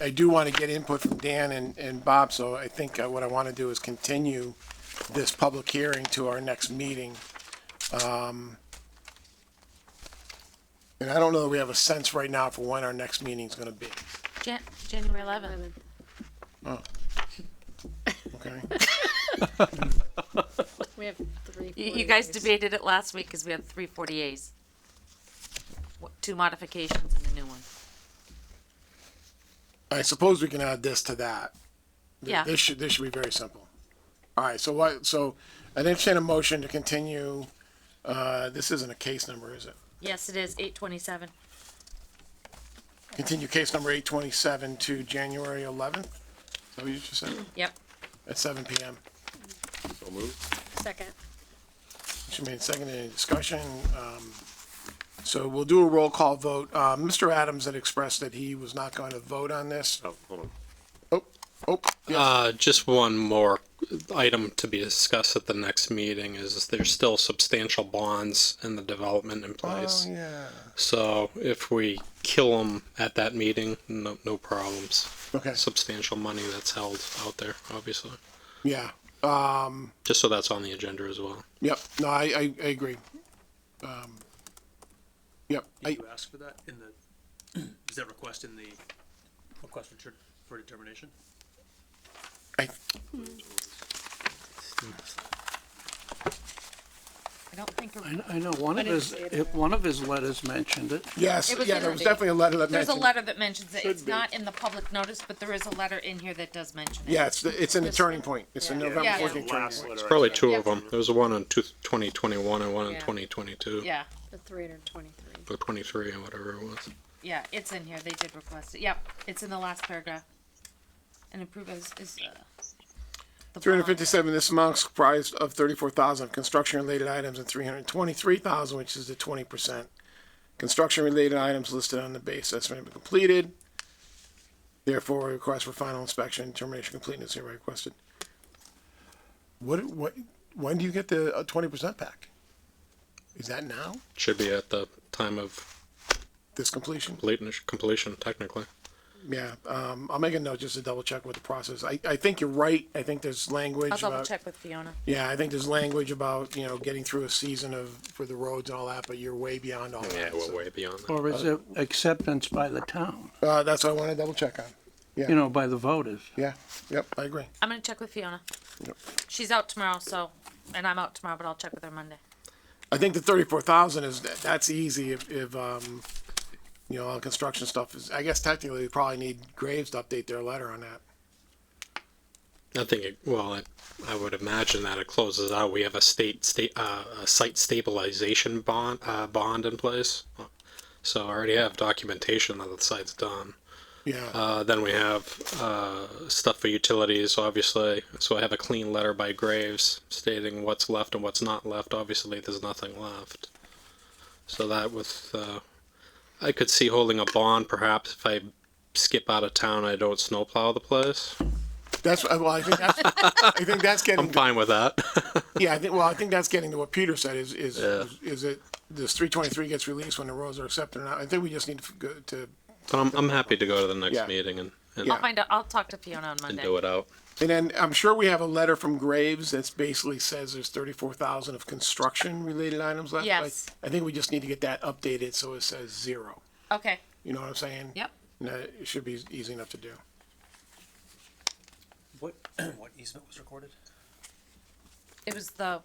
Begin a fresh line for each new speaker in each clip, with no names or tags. I do want to get input from Dan and, and Bob, so I think uh, what I want to do is continue this public hearing to our next meeting. Um, And I don't know that we have a sense right now for when our next meeting's going to be,
Jan- January eleventh.
okay?
We have three.
You, you guys debated it last week because we had three forty As. Two modifications and a new one.
I suppose we can add this to that. Th-
Yeah.
This should, this should be very simple. All right, so what, so I entertain a motion to continue, uh, this isn't a case number, is it?
Yes, it is eight twenty-seven.
Continue case number eight twenty-seven to January eleventh? Is that what you just said?
Yep.
At seven PM.
Second.
Motion made second, any discussion? Um, so we'll do a roll call vote. Uh, Mr. Adams had expressed that he was not going to vote on this.
Oh, hold on.
Oh, oh, yeah,
Uh, just one more item to be discussed at the next meeting is there's still substantial bonds in the development in place.
Oh,
yeah.
So if we kill them at that meeting, no, no problems.
Okay,
Substantial money that's held out there, obviously.
yeah.
Just so that's on the agenda as well.
Yep, no, I, I, I agree. Um, Yep, I,
Did you ask for that in the, is that request in the request for, ter- for determination?
I,
I don't think it-
I, I know, one of his, if- one of his letters mentioned it.
yes,
It was
yeah,
in
there was
the-
definitely a letter that
There's a
mentioned.
letter that mentions it. It's
be.
not in the public notice, but there is a letter in here that does mention it.
Yeah, it's, the- it's in the turning point. It's in November
Yeah.
fourteenth turning
Last
point.
letter I
Probably
sent.
two
Yeah.
of them. There was one in two- 2021 and one in
Yeah.
2022
Yeah,
The three hundred and twenty-three.
or 23 or whatever it was.
yeah, it's in here. They did request it. Yep, it's in the last paragraph. And approve is, is, uh. the
Three hundred
bond.
fifty-seven, this amount is comprised of thirty-four thousand construction-related items and three hundred twenty-three thousand, which is the twenty percent. Construction-related items listed on the base estimate have been completed. Therefore, a request for final inspection and termination completeness hereby requested. What, what, when do you get the uh, twenty percent back? Is that now,
Should be at the time of
this completion?
completeness- completion, technically.
Yeah, um, I'll make a note just to double check with the process. I, I think you're right. I think there's language
I'll double
about,
check with Fiona.
yeah, I think there's language about, you know, getting through a season of, for the roads and all that, but you're way beyond all
Yeah,
that.
we're
so-
way beyond that.
Or is it acceptance by the town,
Uh, that's what I wanna double check on.
you know, by the voters?
Yeah, yep, I agree.
I'm gonna check with Fiona. She's out tomorrow, so, and I'm out tomorrow, but I'll check with her Monday.
I think the thirty-four thousand is, that's easy if, if, um, you know, all the construction stuff is, I guess technically we probably need Graves to update their letter on that.
I think, it, well, I, I would imagine that it closes out. We have a state, state, uh, a site stabilization bond, uh, bond in place. So I already have documentation that the site's done.
Yeah,
Uh, then we have, uh, stuff for utilities, obviously. So I have a clean letter by Graves stating what's left and what's not left. Obviously, there's nothing left. So that with, uh, I could see holding a bond perhaps if I skip out of town, I don't snowplow the place.
that's, uh, well, I think that's, I think that's getting.
I'm fine with that.
Yeah, I think, well, I think that's getting to what Peter said, is, is, is it, this three twenty-three gets released when the roads are accepted or not, I think we just need to go to,
But I'm, I'm happy to go to the next
Yeah.
meeting and, and,
I'll find out, I'll talk to Fiona on
and
Monday.
do it out.
and then I'm sure we have a letter from Graves that's basically says there's thirty-four thousand of construction-related items left. Like,
Yes.
I think we just need to get that updated so it says zero,
Okay,
you know what I'm saying?
yep.
And that it should be easy enough to do.
What, what easement was recorded?
It was the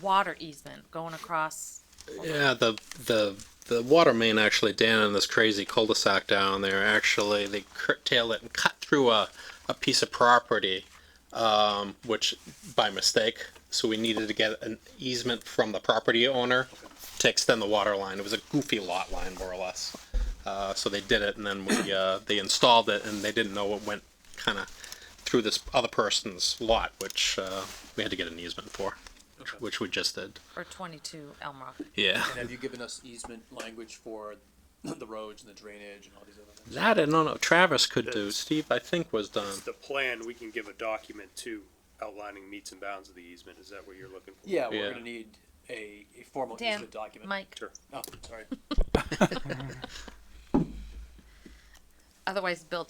water easement going across.
Yeah, the the the water main actually down in this crazy cul-de-sac down there. Actually, they curtail it and cut through a a piece of property, um, which by mistake. So we needed to get an easement from the property owner to extend the water line. It was a goofy lot line, more or less. Uh, so they did it, and then we uh, they installed it, and they didn't know it went kind of through this other person's lot, which uh, we had to get an easement for, which, which we just did.
Or twenty-two Elm Rock.
Yeah.
And have you given us easement language for the roads and the drainage and all these other things?
That I don't know. Travis could do. Steve, I think, was done.
the plan, we can give a document to outlining meets and bounds of the easement, is that what you're looking for?
Yeah,
Yeah.
we're gonna need a, a formal
Dan,
easement document.
Mike,
Sure.
Oh, sorry.
otherwise Bill